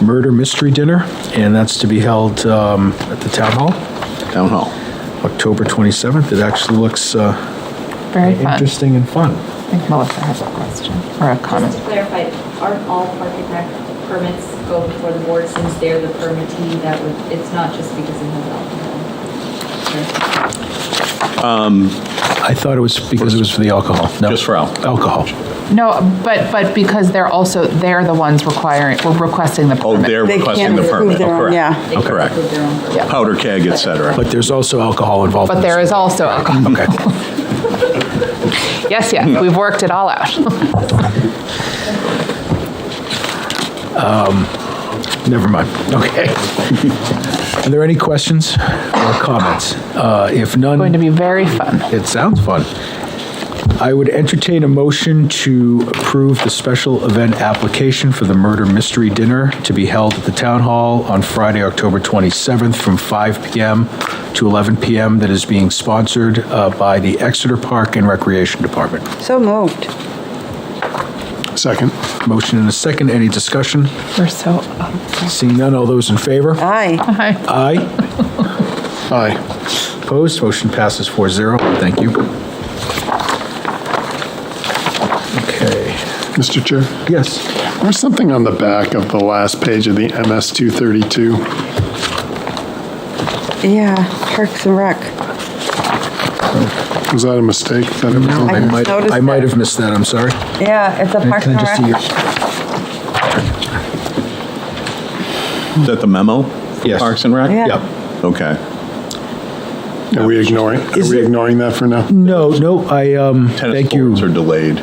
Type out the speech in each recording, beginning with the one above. murder mystery dinner, and that's to be held um, at the town hall, Town Hall. October 27th. It actually looks uh, Very fun. interesting and fun. I think Melissa has a question or a Just to comment. clarify, aren't all parking rec permits go before the board since they're the permittee that would, it's not just because it has alcohol? I thought it was because it was for the alcohol. No. Just for alcohol. Alcohol. No, but, but because they're also, they're the ones requiring, we're requesting the Oh, permit. they're They requesting can't the approve permit. their Oh, own, correct. yeah. They can Correct. approve their own permit. Yeah. Powder keg, et cetera. But there's also alcohol involved. But in there this. is also alcohol. Okay. Yes, yes, we've worked it all out. Never mind. Okay. Are there any questions or comments? Uh, If Going to none, be very fun. it sounds fun. I would entertain a motion to approve the special event application for the murder mystery dinner to be held at the Town Hall on Friday, October 27th, from 5 PM to 11 PM, that is being sponsored uh, by the Exeter Park and Recreation Department. So moved. Second. Motion and a second. Any discussion? We're so up. Seeing none, all those in favor? Aye. Hi. Aye. Aye. Opposed? Motion passes 4-0. Thank you. Okay. Mr. Chair, Yes. there's something on the back of the last page of the MS 232. Yeah, Parks and Rec. Was that a mistake? That it was on Oh, I there? might, noticed I might that. have missed that. I'm sorry. Yeah, it's a Parks Can and I just see Rec. your- Is that the memo? Yes. Parks and Rec? Yeah. Yep. Okay. Are we ignoring, are Is we it- Mm. ignoring that for now? No, no, I, um, Tennis thank courts are you. delayed.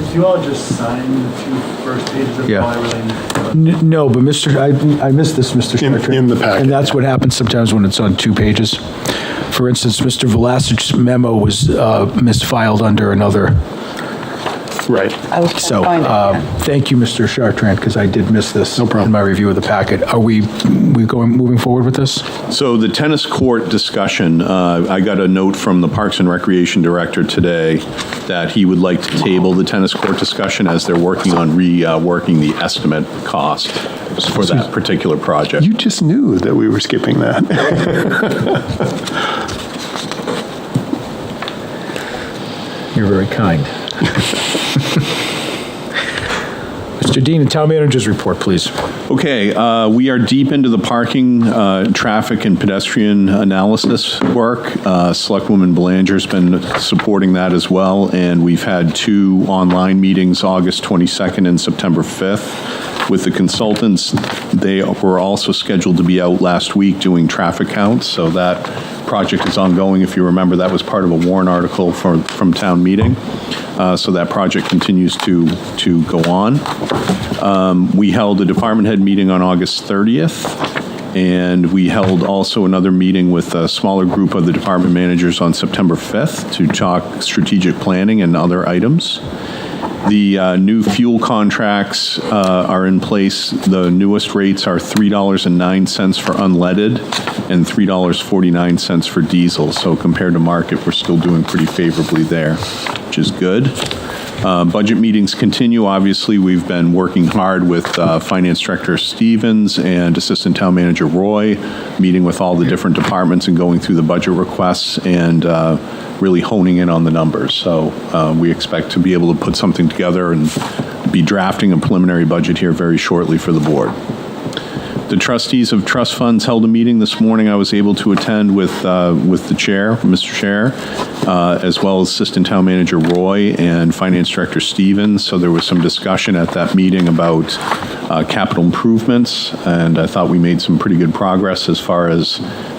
If you all just sign the two first pages of Yeah. my related. N- No, but Mr., I, I missed this, Mr. In- Stricker. in the packet, And that's yeah. what happens sometimes when it's on two pages. For instance, Mr. Velasich's memo was, uh, misfiled under another Right. So, uh, thank you, Mr. Chartrand, because I did miss this. No problem. In my review of the packet. Are we, we going, moving forward with this? So the tennis court discussion, uh, I got a note from the Parks and Recreation Director today that he would like to table the tennis court discussion as they're working on reworking the estimate cost for that particular project. You just knew that we were skipping that. You're very kind. Mr. Dean, the town manager's report, please. Okay, uh, we are deep into the parking, uh, traffic, and pedestrian analysis work. Uh, Selectwoman Belanger's been supporting that as well, and we've had two online meetings, August 22nd and September 5th, with the consultants. They were also scheduled to be out last week doing traffic counts, so that project is ongoing. If you remember, that was part of a warrant article from, from town meeting. Uh, So that project continues to, to go on. Um, We held a department head meeting on August 30th, and we held also another meeting with a smaller group of the department managers on September 5th to talk strategic planning and other items. The uh, new fuel contracts uh, are in place. The newest rates are $3.09 for unleaded and $3.49 for diesel. So compared to market, we're still doing pretty favorably there, which is good. Uh, Budget meetings continue. Obviously, we've been working hard with uh, Finance Director Stevens and Assistant Town Manager Roy, meeting with all the different departments and going through the budget requests and uh, really honing in on the numbers. So uh, we expect to be able to put something together and be drafting a preliminary budget here very shortly for the board. The trustees of trust funds held a meeting this morning. I was able to attend with, uh, with the chair, Mr. Chair, uh, as well as Assistant Town Manager Roy and Finance Director Stevens. So there was some discussion at that meeting about uh, capital improvements, and I thought we made some pretty good progress as far as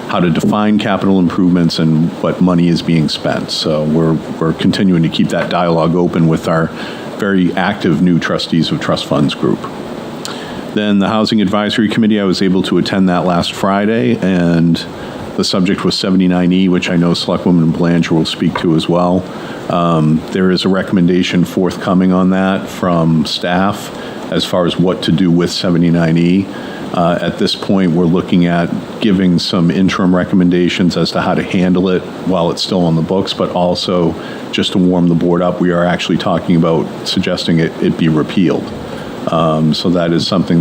how to define capital improvements and what money is being spent. So we're, we're continuing to keep that dialogue open with our very active new trustees of trust funds group. Then the Housing Advisory Committee, I was able to attend that last Friday, and the subject was 79E, which I know Selectwoman Belanger will speak to as well. Um, There is a recommendation forthcoming on that from staff as far as what to do with 79E. Uh, At this point, we're looking at giving some interim recommendations as to how to handle it while it's still on the books, but also, just to warm the board up, we are actually talking about suggesting it it be repealed. Um, So that is something